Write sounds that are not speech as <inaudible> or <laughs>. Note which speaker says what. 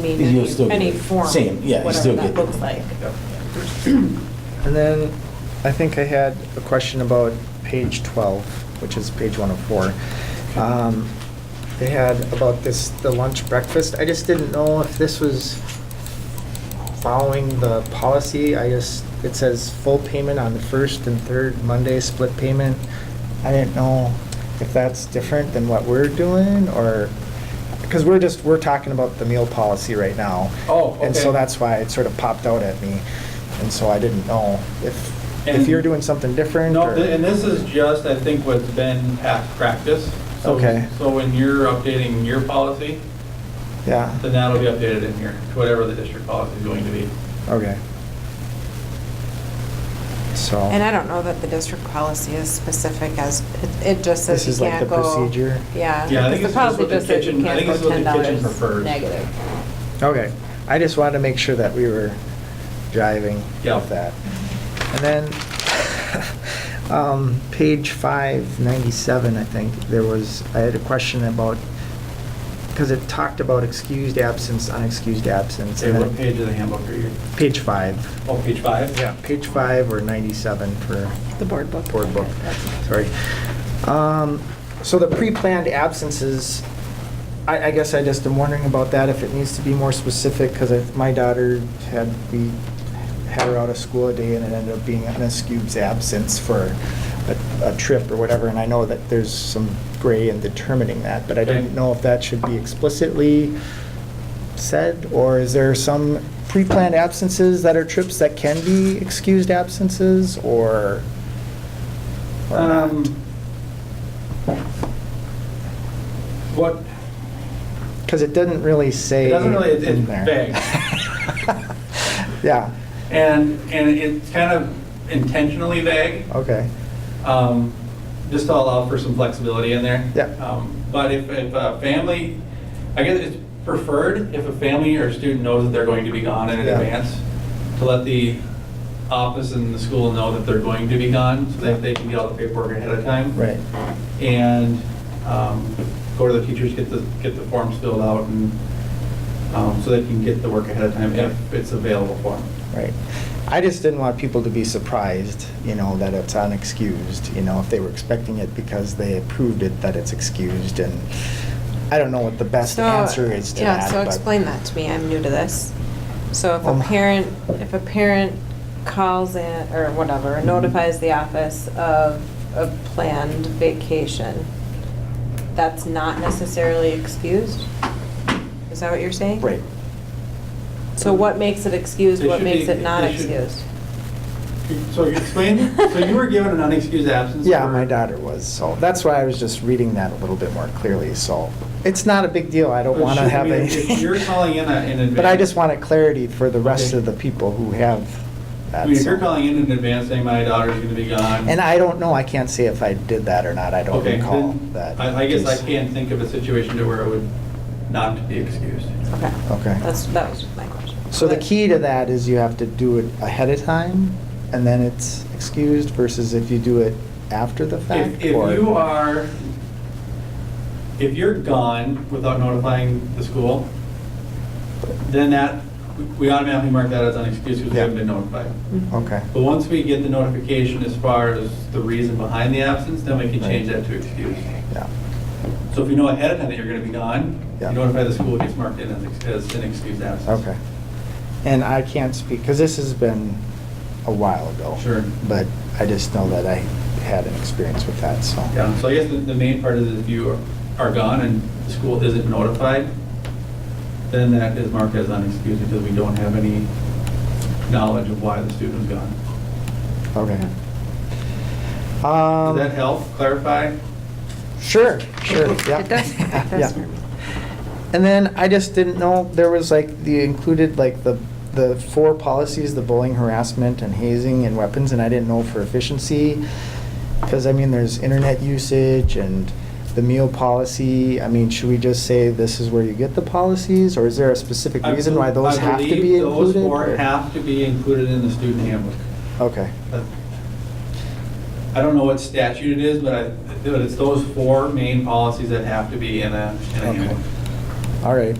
Speaker 1: mean,
Speaker 2: You'll
Speaker 1: any
Speaker 2: still get
Speaker 1: any
Speaker 2: it.
Speaker 1: form,
Speaker 2: Same, yeah, you
Speaker 1: whatever
Speaker 2: still get
Speaker 1: that
Speaker 2: it.
Speaker 1: looks like.
Speaker 3: And then I think I had a question about page 12, which is page 104. Um, They had about this, the lunch breakfast. I just didn't know if this was following the policy. I just, it says full payment on the first and third Monday, split payment. I didn't know if that's different than what we're doing or, because we're just, we're talking about the meal policy right now.
Speaker 4: Oh,
Speaker 3: And so
Speaker 4: okay.
Speaker 3: that's why it sort of popped out at me. And so I didn't know if, if
Speaker 4: And-
Speaker 3: you're doing something different
Speaker 4: No,
Speaker 3: or.
Speaker 4: th- and this is just, I think, what's been past practice. So-
Speaker 3: Okay.
Speaker 4: So when you're updating your policy,
Speaker 3: Yeah,
Speaker 4: then that'll be updated in here, to whatever the district policy is going to be.
Speaker 3: okay. So.
Speaker 1: And I don't know that the district policy is specific as, it- it just says
Speaker 3: This
Speaker 1: you
Speaker 3: is like
Speaker 1: can't
Speaker 3: the
Speaker 1: go.
Speaker 3: procedure?
Speaker 1: Yeah.
Speaker 4: Yeah,
Speaker 1: because
Speaker 4: I think
Speaker 1: the
Speaker 4: it's just
Speaker 1: policy
Speaker 4: what the
Speaker 1: says you
Speaker 4: kitchen- I
Speaker 1: can't
Speaker 4: think
Speaker 1: go
Speaker 4: it's what the
Speaker 1: $10
Speaker 4: kitchen prefers.
Speaker 1: Negative.
Speaker 3: Okay, I just wanted to make sure that we were driving
Speaker 4: Yeah.
Speaker 3: with that. And then, <laughs> um, page five ninety-seven, I think, there was, I had a question about, because it talked about excused absence, unexcused absence.
Speaker 4: Say,
Speaker 3: and
Speaker 4: what
Speaker 3: then-
Speaker 4: page of the handbook are you?
Speaker 3: Page five.
Speaker 4: Oh, page five?
Speaker 3: Yeah, page five or ninety-seven for
Speaker 1: The board book.
Speaker 3: board book, sorry. Um, So the pre-planned absences, I, I guess I just am wondering about that, if it needs to be more specific, because my daughter had, we had her out of school a day and it ended up being an excused absence for a, a trip or whatever, and I know that there's some gray in determining that, but I didn't
Speaker 4: Okay.
Speaker 3: know if that should be explicitly said, or is there some pre-planned absences that are trips that can be excused absences, or? or not?
Speaker 4: Um, What,
Speaker 3: Because it doesn't really say.
Speaker 4: it doesn't really, it's- it's
Speaker 3: in there.
Speaker 4: vague.
Speaker 3: <laughs> Yeah,
Speaker 4: And, and it's kind of intentionally vague.
Speaker 3: okay,
Speaker 4: um, just to allow for some flexibility in there.
Speaker 3: Yeah.
Speaker 4: Um, But if, if a family, I guess it's preferred if a family or student knows that they're going to be gone in
Speaker 3: Yeah.
Speaker 4: advance, to let the office and the school know that they're going to be gone, so that they can get all the paperwork ahead of time.
Speaker 3: right,
Speaker 4: And um, go to the teachers, get the, get the forms filled out, and, um, so they can get the work ahead of time if it's available for them.
Speaker 3: right. I just didn't want people to be surprised, you know, that it's unexcused, you know, if they were expecting it because they approved it, that it's excused, and I don't know what the best
Speaker 1: So,
Speaker 3: answer is to
Speaker 1: yeah,
Speaker 3: that.
Speaker 1: So
Speaker 3: but-
Speaker 1: explain that to me, I'm new to this. So if
Speaker 3: Um,
Speaker 1: a parent, if a parent calls in, or whatever,
Speaker 3: Mhm.
Speaker 1: notifies the office of a planned vacation, that's not necessarily excused? Is that what you're saying?
Speaker 3: Right,
Speaker 1: So what makes it excused,
Speaker 4: It
Speaker 1: what
Speaker 4: should
Speaker 1: makes
Speaker 4: be-
Speaker 1: it not
Speaker 4: it should-
Speaker 1: excused?
Speaker 4: So explain, so you were given an unexcused absence?
Speaker 3: yeah,
Speaker 4: for-
Speaker 3: my daughter was, so that's why I was just reading that a little bit more clearly, so. It's not a big deal, I don't
Speaker 4: But
Speaker 3: want to
Speaker 4: should
Speaker 3: have
Speaker 4: we-
Speaker 3: any. <laughs>
Speaker 4: If you're calling in a- in advance.
Speaker 3: But I just wanted clarity for the rest
Speaker 4: Okay.
Speaker 3: of the people who have
Speaker 4: I
Speaker 3: that.
Speaker 4: mean, if you're
Speaker 3: so-
Speaker 4: calling in in advance saying my daughter's going to be gone.
Speaker 3: And I don't know, I can't say if I did that or not, I don't
Speaker 4: Okay,
Speaker 3: recall
Speaker 4: then
Speaker 3: that.
Speaker 4: I, I guess I
Speaker 3: piece.
Speaker 4: can't think of a situation to where it would not be excused.
Speaker 1: Okay.
Speaker 3: Okay.
Speaker 1: That's, that was my question.
Speaker 3: So the
Speaker 1: But-
Speaker 3: key to that is you have to do it ahead of time, and then it's excused versus if you do it after the fact?
Speaker 4: If, if
Speaker 3: or-
Speaker 4: you are, if you're gone without notifying the school, then that, we- we automatically mark that as unexcused because we
Speaker 3: Yeah.
Speaker 4: haven't been notified.
Speaker 1: Mhm.
Speaker 3: Okay,
Speaker 4: But once we get the notification as far as the reason behind the absence, then we can
Speaker 3: Right.
Speaker 4: change that to excused.
Speaker 3: yeah,
Speaker 4: So if you know ahead of time that you're going to be gone, you
Speaker 3: Yeah.
Speaker 4: notify the school, it gets marked in as ex- as an excused absence.
Speaker 3: okay. And I can't speak, because this has been a while ago.
Speaker 4: Sure.
Speaker 3: But I just know that I had an experience with that, so.
Speaker 4: Yeah, so I guess the, the main part is if you are gone and the school isn't notified, then that is marked as unexcused because we don't have any knowledge of why the student is gone.
Speaker 3: Okay.
Speaker 4: Does
Speaker 3: Um,
Speaker 4: that help clarify?
Speaker 3: Sure, sure, yeah.
Speaker 1: It does, it
Speaker 3: Yeah.
Speaker 1: does. for me.
Speaker 3: And then I just didn't know, there was like, the included, like, the, the four policies, the bullying, harassment, and hazing, and weapons, and I didn't know for efficiency, because, I mean, there's internet usage and the meal policy, I mean, should we just say this is where you get the policies, or is there a specific
Speaker 4: I
Speaker 3: reason why
Speaker 4: bel-
Speaker 3: those have to
Speaker 4: I
Speaker 3: be
Speaker 4: believe
Speaker 3: included?
Speaker 4: those four
Speaker 3: or-
Speaker 4: have to be included in the student handbook.
Speaker 3: Okay,
Speaker 4: That- I don't know what statute it is, but I, but it's those four main policies that have to be in a, in a
Speaker 3: Okay.
Speaker 4: handbook.
Speaker 3: all right,